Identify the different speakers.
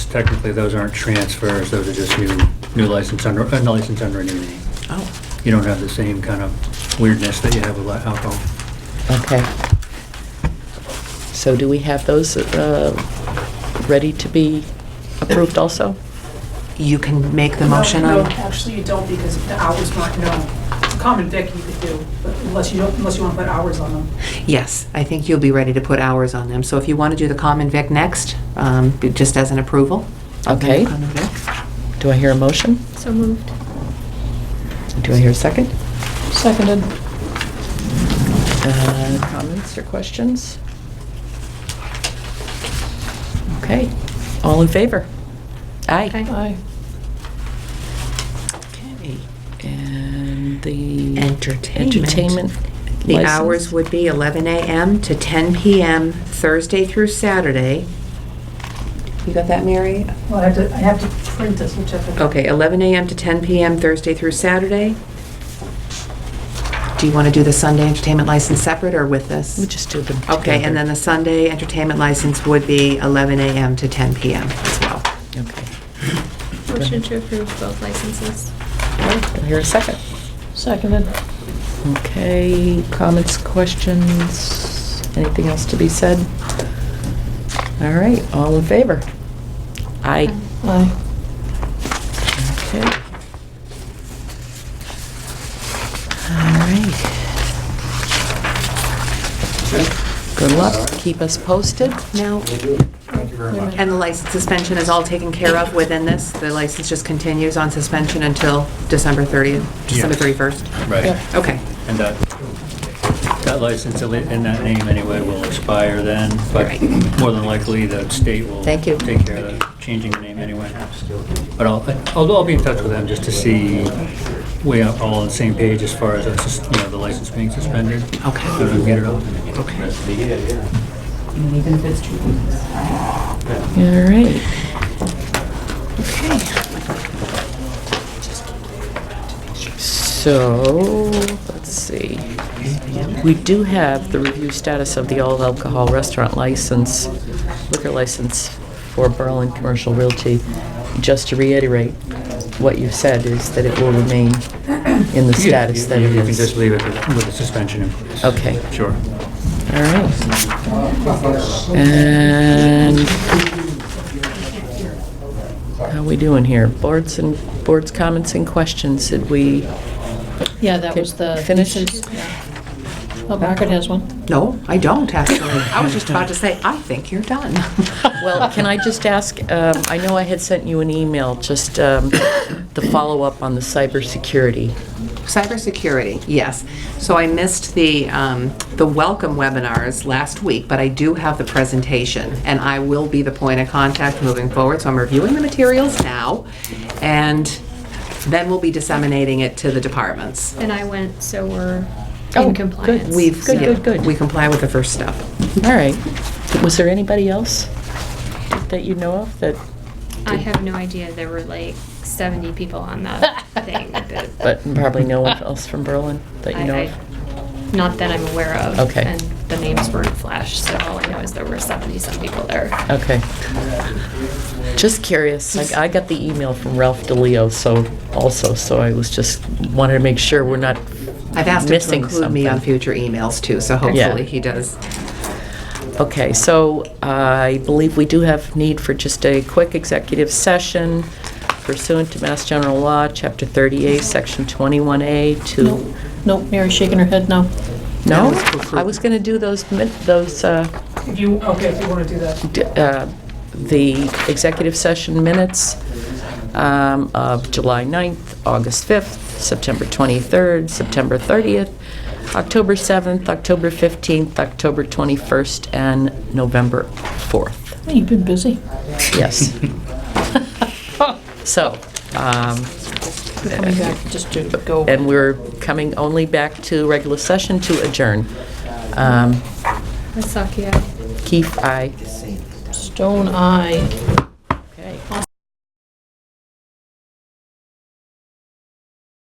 Speaker 1: technically, those aren't transfers, those are just new, new license under, a license under a new name.
Speaker 2: Oh,
Speaker 1: You don't have the same kind of weirdness that you have with li- alcohol.
Speaker 2: okay. So do we have those uh, ready to be approved also?
Speaker 3: You can make the motion
Speaker 4: No, no,
Speaker 3: on,
Speaker 4: Actually, you don't because the hours not known. Common vic you could do, but unless you don't, unless you want to put hours on them.
Speaker 3: yes, I think you'll be ready to put hours on them. So if you want to do the common vic next, um, just as an approval. of the
Speaker 2: Okay.
Speaker 3: common vic.
Speaker 2: Do I hear a motion?
Speaker 5: So moved.
Speaker 2: Do I hear a second? Seconded. Uh, Comments or questions? Okay, all in favor?
Speaker 3: Aye.
Speaker 2: Aye. Okay, and the...
Speaker 3: Entertainment.
Speaker 2: Entertainment
Speaker 3: The hours
Speaker 2: license?
Speaker 3: would be 11 a.m. to 10 p.m., Thursday through Saturday. You got that, Mary?
Speaker 4: Well, I have to, I have to print this, we'll check it.
Speaker 3: Okay, 11 a.m. to 10 p.m., Thursday through Saturday. Do you want to do the Sunday entertainment license separate or with this?
Speaker 2: We just do them
Speaker 3: Okay, and then the Sunday entertainment license would be 11 a.m. to 10 p.m. as well.
Speaker 2: together. Okay.
Speaker 5: Motion to approve both licenses.
Speaker 2: Okay, Do I hear a second?
Speaker 6: Seconded.
Speaker 2: Okay, comments, questions, anything else to be said? All right, all in favor? Aye.
Speaker 6: Aye.
Speaker 2: Okay. All right. Good luck, keep us posted.
Speaker 3: Now,
Speaker 7: Thank you very much.
Speaker 3: and the license suspension is all taken care of within this? The license just continues on suspension until December 30th, December
Speaker 1: Yes.
Speaker 3: 31st?
Speaker 1: Right.
Speaker 2: Yep.
Speaker 3: Okay,
Speaker 1: And that, that license in that name anyway will expire then, but
Speaker 3: Right.
Speaker 1: more than likely the state will.
Speaker 2: Thank you.
Speaker 1: Take care of that, changing the name anyway. But I'll, although I'll be in touch with them just to see we are all on the same page as far as, uh, sus- you know, the license being suspended.
Speaker 3: Okay.
Speaker 1: So we can get it up.
Speaker 3: okay.
Speaker 2: All right. Okay. So, let's see. We do have the review status of the all alcohol restaurant license, liquor license for Berlin Commercial Realty. Just to reiterate, what you've said is that it will remain in the
Speaker 1: Yeah,
Speaker 2: status
Speaker 1: you-
Speaker 2: that it
Speaker 1: You can just
Speaker 2: is.
Speaker 1: leave it with the suspension in place.
Speaker 2: Okay.
Speaker 1: Sure.
Speaker 2: All right. And how we doing here? Boards and, boards comments and questions, did we?
Speaker 6: Yeah, that was the.
Speaker 2: Finish?
Speaker 6: Yeah. Oh, Margaret has one.
Speaker 3: No, I don't, actually. I was just about to say, I think you're done.
Speaker 2: Well, can I just ask, um, I know I had sent you an email, just um, the follow-up on the cybersecurity.
Speaker 3: Cybersecurity, yes. So I missed the, um, the welcome webinars last week, but I do have the presentation, and I will be the point of contact moving forward, so I'm reviewing the materials now, and then we'll be disseminating it to the departments.
Speaker 5: And I went, so we're
Speaker 2: Oh,
Speaker 5: in
Speaker 2: good.
Speaker 5: compliance.
Speaker 2: We've- Good,
Speaker 3: Yeah,
Speaker 2: good, good.
Speaker 3: We comply with the first step.
Speaker 2: All right. Was there anybody else that you know of that,
Speaker 5: I have no idea, there were like 70 people on that thing. that-
Speaker 2: but probably no one else from Berlin that you
Speaker 5: I-
Speaker 2: know
Speaker 5: I-
Speaker 2: of?
Speaker 5: Not that I'm aware of.
Speaker 2: Okay.
Speaker 5: And the names weren't flashed, so all I know is there were 70-some people there.
Speaker 2: Okay. Just curious, like, I got the email from Ralph DeLeo, so, also, so I was just, wanted to make sure we're not
Speaker 3: I've asked him to
Speaker 2: Missing
Speaker 3: include me on
Speaker 2: something.
Speaker 3: future emails, too, so hopefully he does.
Speaker 2: Okay, so I believe we do have need for just a quick executive session pursuant to Mass General Law, Chapter 38, Section 21A
Speaker 6: Nope,
Speaker 2: to...
Speaker 6: nope, Mary's shaking her head no.
Speaker 3: That
Speaker 2: No?
Speaker 3: was for fruit.
Speaker 2: I was going to do those, min- those, uh,
Speaker 4: If you, okay, if you want to do that.
Speaker 2: d- uh, the executive session minutes um, of July 9th, August 5th, September 23rd, September 30th, October 7th, October 15th, October 21st, and November 4th.
Speaker 6: You've been busy.
Speaker 2: Yes. So, um,
Speaker 6: You're coming back just to go.
Speaker 2: and we're coming only back to regular session to adjourn. Um,
Speaker 5: Masaki, aye.
Speaker 2: Keith, aye.
Speaker 6: Stone eye.